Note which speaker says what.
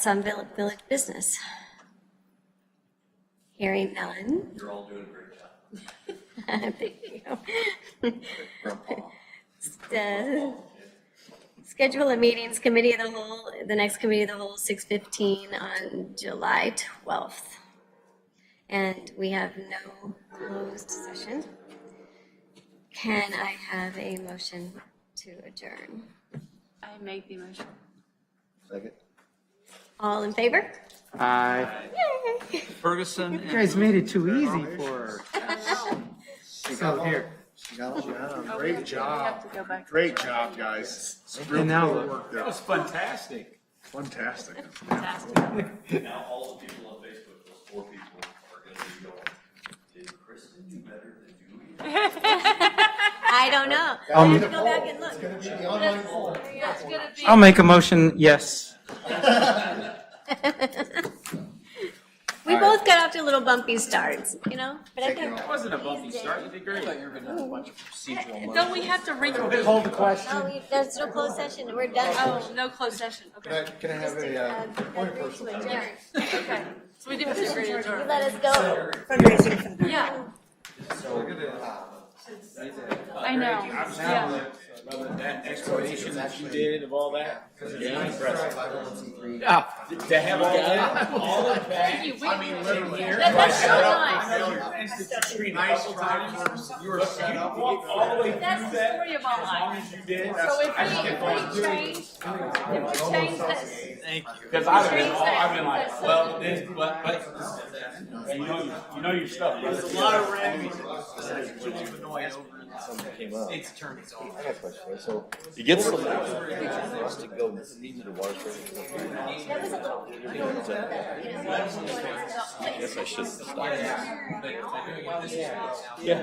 Speaker 1: some vill- village business? Hearing none.
Speaker 2: You're all doing a great job.
Speaker 1: Thank you.
Speaker 2: Grandpa.
Speaker 1: Uh, Schedule a meetings committee of the whole, the next committee of the whole, six fifteen on July twelfth. And we have no closed session. Can I have a motion to adjourn?
Speaker 3: I make the motion.
Speaker 2: Second.
Speaker 1: All in favor?
Speaker 4: Aye.
Speaker 1: Yay!
Speaker 5: Ferguson
Speaker 4: You
Speaker 5: and
Speaker 4: guys made it too easy for her. So here,
Speaker 2: She got
Speaker 3: Oh,
Speaker 2: it.
Speaker 3: we
Speaker 6: Great
Speaker 3: have to-
Speaker 6: job.
Speaker 3: We have to go back.
Speaker 6: Great job, guys.
Speaker 4: and now
Speaker 6: Good
Speaker 4: look.
Speaker 6: work there.
Speaker 5: was fantastic.
Speaker 6: Fantastic.
Speaker 2: Now, all the people on Facebook, those four people are gonna be going, did Kristen do better than Julie?
Speaker 1: I don't know. I have to go back and look.
Speaker 4: I'll make a motion, yes.
Speaker 1: We both got off to little bumpy starts, you know, but I think.
Speaker 5: It wasn't a bumpy start, you did great.
Speaker 3: No, we have to ring the bell.
Speaker 4: Hold the question.
Speaker 1: Oh, we- there's no closed session, we're done.
Speaker 3: Oh, no closed session, okay.
Speaker 2: Can I have a, uh, point of personal comment?
Speaker 3: Okay, so we do have to agree to
Speaker 1: You
Speaker 3: adjourn.
Speaker 1: let us go.
Speaker 3: Yeah. I know, yeah.
Speaker 5: That explanation that you did of all that. Yeah, impressive. To have all that, all of that.
Speaker 3: Thank you, we- That- That's so nice.
Speaker 5: Nice try. You were set up. All the way through
Speaker 3: That's the
Speaker 5: that,
Speaker 3: story of our life.
Speaker 5: as you did.
Speaker 3: So if we, if we change, if we change this,
Speaker 5: Thank you. Because I've been,
Speaker 3: Change that.
Speaker 5: I've been like, well, this, but, but, you know, you know your stuff. There's a lot of random. It's turned its own.
Speaker 7: So you get some to go into the water. Yes, I should.